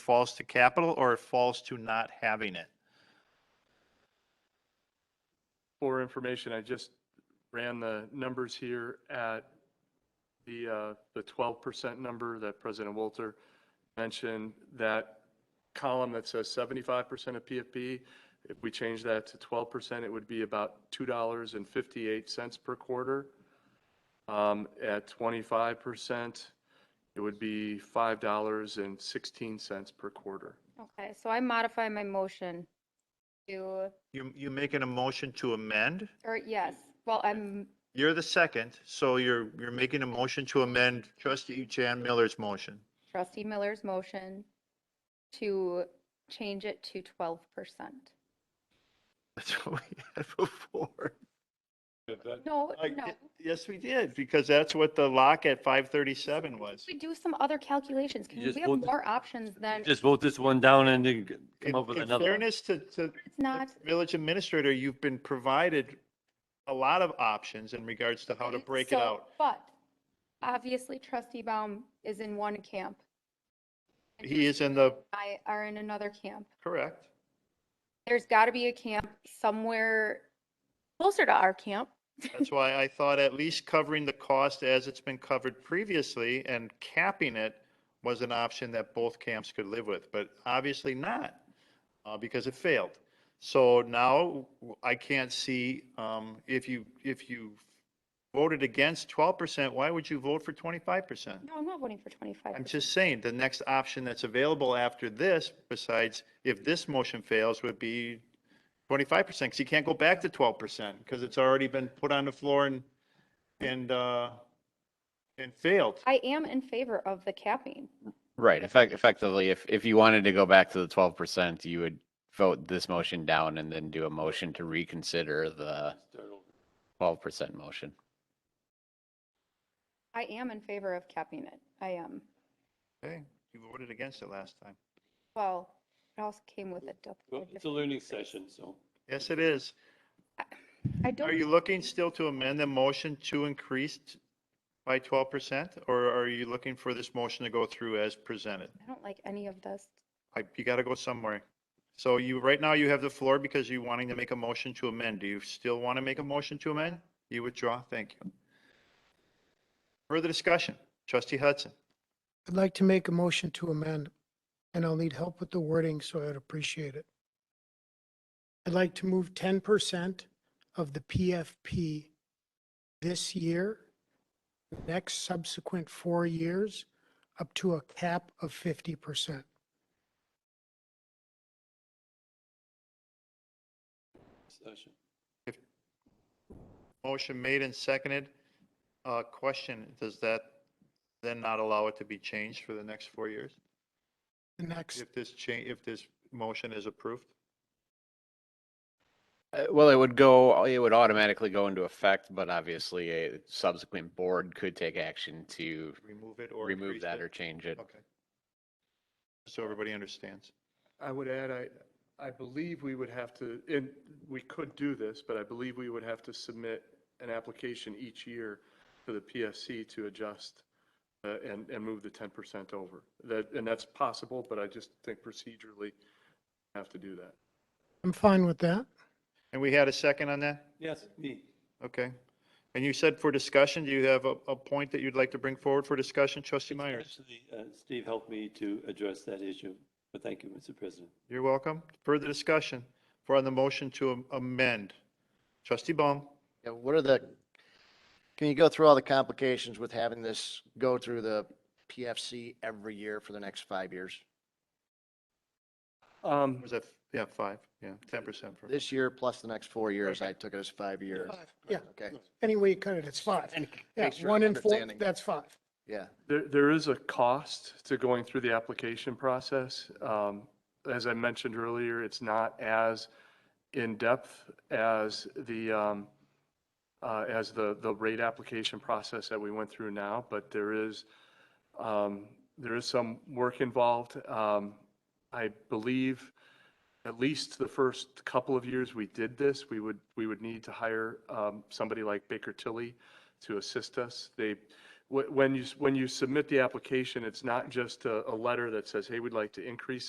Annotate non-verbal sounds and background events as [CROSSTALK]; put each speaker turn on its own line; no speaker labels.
falls to capital or it falls to not having it.
For information, I just ran the numbers here at the, uh, the 12% number that President Walter mentioned, that column that says 75% of PFP, if we change that to 12%, it would be about $2.58 per quarter. Um, At 25%, it would be $5.16 per quarter.
Okay, so I modify my motion to,
You, you making a motion to amend?
or yes, well, I'm,
You're the second, so you're, you're making a motion to amend trustee Jan Miller's motion. [LAUGHS]
trustee Miller's motion to change it to 12%.
That's what we had before.
No,
Like,
no.
Yes, we did, because that's what the lock at 537 was.
We do some other calculations. Can
You
we
just
have
vote-
more options than, it's
Just vote this one down and then g-
In
come up with
in
another. one.
fairness to, to
not,
village administrator, you've been provided a lot of options in regards to how to break it
So-
out.
But obviously trustee Baum is in one camp. and
He is in the,
I are in another camp.
correct.
There's got to be a camp somewhere closer to our camp.
That's why I thought at least covering the cost as it's been covered previously and capping it was an option that both camps could live with, but obviously not, uh, because it failed. So now I can't see, um, if you, if you voted against twelve percent, why would you vote for twenty-five percent?
No, I'm not voting for 25.
I'm just saying, the next option that's available after this, besides if this motion fails, would be twenty-five percent, because you can't go back to twelve percent, because it's already been put on the floor and, and, uh, and failed.
I am in favor of the capping.
Right, effect, effectively, if, if you wanted to go back to the twelve percent, you would vote this motion down and then do a motion to reconsider the twelve percent motion.
I am in favor of capping it. I um, am.
Okay, you voted against it last time.
Well, it also came with a dou- a
Well, It's a
different-
learning session, so.
Yes, it is.
I
Are
don't,
you looking still to amend the motion to increase by twelve percent? Or are you looking for this motion to go through as presented?
I don't like any of this.
I, you gotta go somewhere. So you, right now you have the floor because you're wanting to make a motion to amend. Do you still want to make a motion to amend? You withdraw? Thank you. Further discussion? Trustee Hudson,
I'd like to make a motion to amend, and I'll need help with the wording, so I'd appreciate it. I'd like to move ten percent of the PFP this year, the next subsequent four years, up to a cap of fifty percent.
session.
motion made and seconded. Uh, question, does that then not allow it to be changed for the next four years?
The next,
If this change, if this motion is approved?
Uh, well, it would go, it would automatically go into effect, but obviously a subsequent board could take action to
Remove it or
remove
increase
that
it?
or change it.
Okay. So everybody understands.
I would add, I, I believe we would have to, and we could do this, but I believe we would have to submit an application each year to the PSC to adjust uh, and, and move the 10% over. That, and that's possible, but I just think procedurally have to do that.
I'm fine with that.
And we had a second on that?
Yes, me.
Okay. And you said for discussion, do you have a, a point that you'd like to bring forward for discussion, trustee Myers?
Actually, uh, Steve helped me to address that issue, but thank you, Mr. President.
You're welcome. Further discussion for on the motion to am- amend. Trustee Baum,
Yeah, what are the, can you go through all the complications with having this go through the PFC every year for the next five years?
Um,
was that, yeah, five, yeah, ten percent for,
This year plus the next four years, I took it as five years.
Yeah,
Okay,
any way you cut it, it's five.
And
Yeah,
make sure
one
I'm
and four,
understanding.
that's five.
yeah.
There, there is a cost to going through the application process. Um, As I mentioned earlier, it's not as in-depth as the, um, uh, as the, the rate application process that we went through now, but there is, um, there is some work involved. Um, I believe at least the first couple of years we did this, we would, we would need to hire um, somebody like Baker Tilly to assist us. They, wh- when you, s- when you submit the application, it's not just a, a letter that says, hey, we'd like to increase